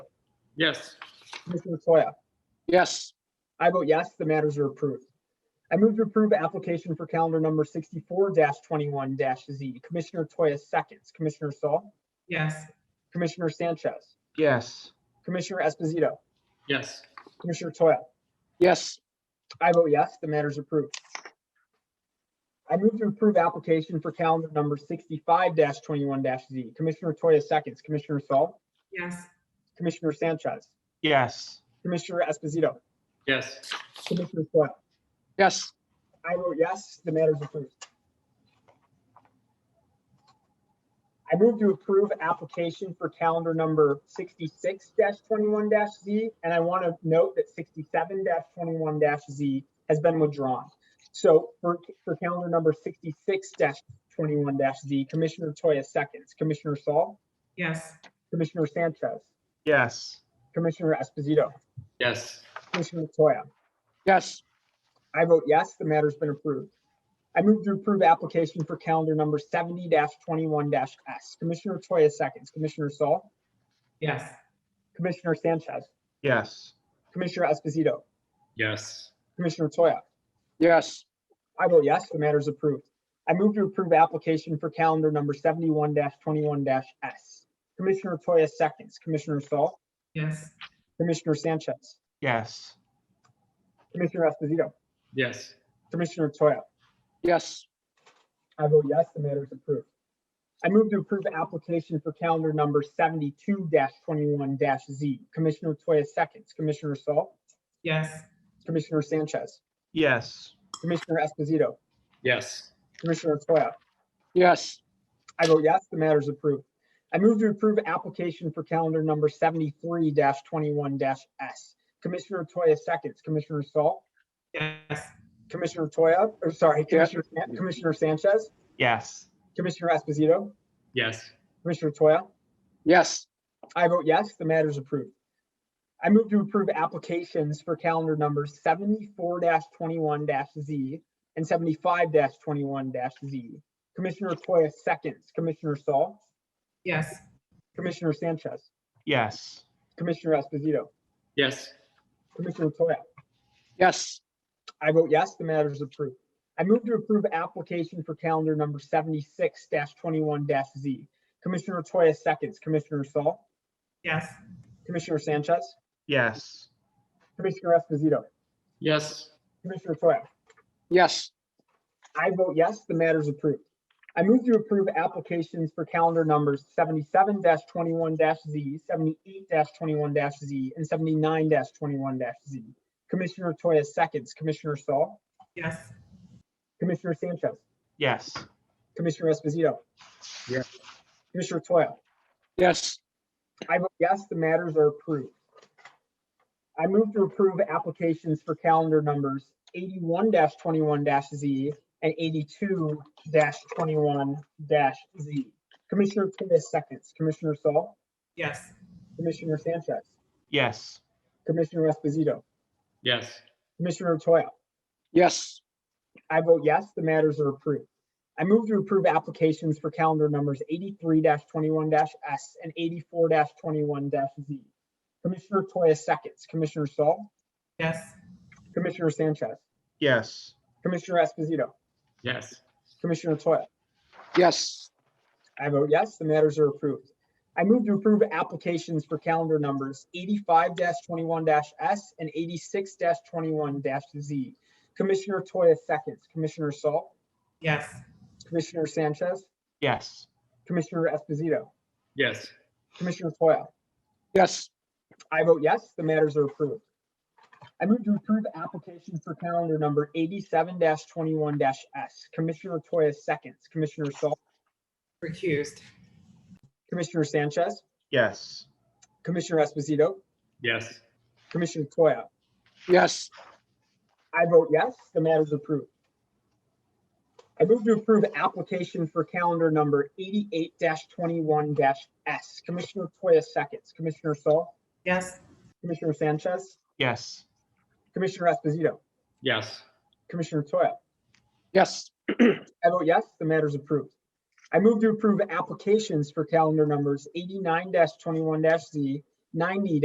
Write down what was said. Yes. Commissioner Toya. Yes. I vote yes, the matters are approved. I move to approve application for calendar number sixty-four twenty-one Z. Commissioner Toya seconds, Commissioner Saul, yes, Commissioner Sanchez, Yes. Commissioner Esposito, Yes. Commissioner Toya. Yes. I vote yes, the matter is approved. I move to approve application for calendar number sixty-five twenty-one Z. Commissioner Toya seconds, Commissioner Saul, yes, Commissioner Sanchez, Yes. Commissioner Esposito, Yes. Commissioner Toya. Yes. I vote yes, the matter is approved. I move to approve application for calendar number sixty-six twenty-one Z, and I want to note that sixty-seven twenty-one Z has been withdrawn. So for, for calendar number sixty-six twenty-one Z, Commissioner Toya seconds, Commissioner Saul, yes, Commissioner Sanchez, Yes. Commissioner Esposito, Yes. Commissioner Toya. Yes. I vote yes, the matter's been approved. I move to approve application for calendar number seventy twenty-one S. Commissioner Toya seconds, Commissioner Saul, yes, Commissioner Sanchez, Yes. Commissioner Esposito, Yes. Commissioner Toya. Yes. I vote yes, the matter's approved. I move to approve application for calendar number seventy-one twenty-one S. Commissioner Toya seconds, Commissioner Saul, yes, Commissioner Sanchez, Yes. Commissioner Esposito, Yes. Commissioner Toya. Yes. I vote yes, the matter is approved. I move to approve the application for calendar number seventy-two twenty-one Z. Commissioner Toya seconds, Commissioner Saul, yes, Commissioner Sanchez, Yes. Commissioner Esposito, Yes. Commissioner Toya. Yes. I vote yes, the matter is approved. I move to approve application for calendar number seventy-three twenty-one S. Commissioner Toya seconds, Commissioner Saul, yes, Commissioner Toya, or sorry, Yeah. Commissioner San- Commissioner Sanchez, Yes. Commissioner Esposito, Yes. Commissioner Toya. Yes. I vote yes, the matter is approved. I move to approve applications for calendar numbers seventy-four twenty-one Z and seventy-five twenty-one Z. Commissioner Toya seconds, Commissioner Saul, yes, Commissioner Sanchez, Yes. Commissioner Esposito, Yes. Commissioner Toya. Yes. I vote yes, the matter is approved. I move to approve application for calendar number seventy-six twenty-one Z. Commissioner Toya seconds, Commissioner Saul, yes, Commissioner Sanchez, Yes. Commissioner Esposito, Yes. Commissioner Toya. Yes. I vote yes, the matter is approved. I move to approve applications for calendar numbers seventy-seven twenty-one Z, seventy-eight twenty-one Z, and seventy-nine twenty-one Z. Commissioner Toya seconds, Commissioner Saul, yes, Commissioner Sanchez, Yes. Commissioner Esposito. Yes. Commissioner Toya. Yes. I vote yes, the matters are approved. I move to approve applications for calendar numbers eighty-one twenty-one Z and eighty-two twenty-one Z. Commissioner Tivis seconds, Commissioner Saul, yes, Commissioner Sanchez, Yes. Commissioner Esposito, Yes. Commissioner Toya. Yes. I vote yes, the matters are approved. I move to approve applications for calendar numbers eighty-three twenty-one S and eighty-four twenty-one Z. Commissioner Toya seconds, Commissioner Saul, yes, Commissioner Sanchez, Yes. Commissioner Esposito, Yes. Commissioner Toya. Yes. I vote yes, the matters are approved. I move to approve applications for calendar numbers eighty-five twenty-one S and eighty-six twenty-one Z. Commissioner Toya seconds, Commissioner Saul, yes, Commissioner Sanchez, Yes. Commissioner Esposito, Yes. Commissioner Toya. Yes. I vote yes, the matters are approved. I move to approve application for calendar number eighty-seven twenty-one S. Commissioner Toya seconds, Commissioner Saul, recused, Commissioner Sanchez, Yes. Commissioner Esposito, Yes. Commissioner Toya. Yes. I vote yes, the matter is approved. I move to approve application for calendar number eighty-eight twenty-one S. Commissioner Toya seconds, Commissioner Saul, yes, Commissioner Sanchez, Yes. Commissioner Esposito, Yes. Commissioner Toya. Yes. I vote yes, the matter is approved. I move to approve applications for calendar numbers eighty-nine twenty-one Z, ninety